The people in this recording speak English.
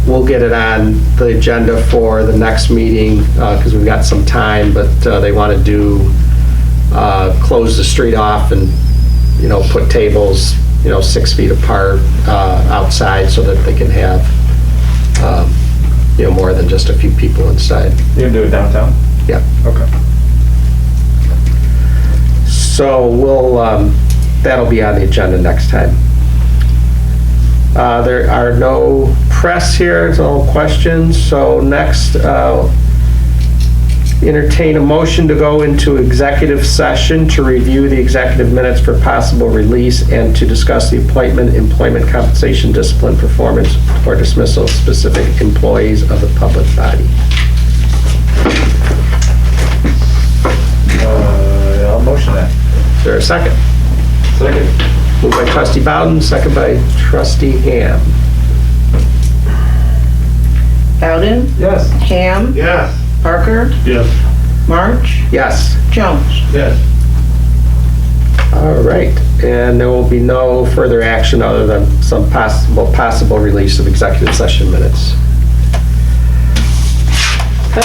we'll get it on the agenda for the next meeting, because we've got some time, but uh, they want to do, uh, close the street off and, you know, put tables, you know, six feet apart uh, outside so that they can have, um, you know, more than just a few people inside. You can do it downtown? Yeah. Okay. So we'll, um, that'll be on the agenda next time. Uh, There are no press here, no questions, so next, uh, entertain a motion to go into executive session to review the executive minutes for possible release and to discuss the appointment, employment compensation, discipline, performance, or dismissal of specific employees of the public body. Uh, I'll motion that. Is there a second? Second. Moved by trustee Bowden, second by trustee Ham. Bowden, Yes. Ham, Yes. Parker, Yes. March, Yes? Jones. Yes. All right, and there will be no further action other than some possible, possible release of executive session minutes.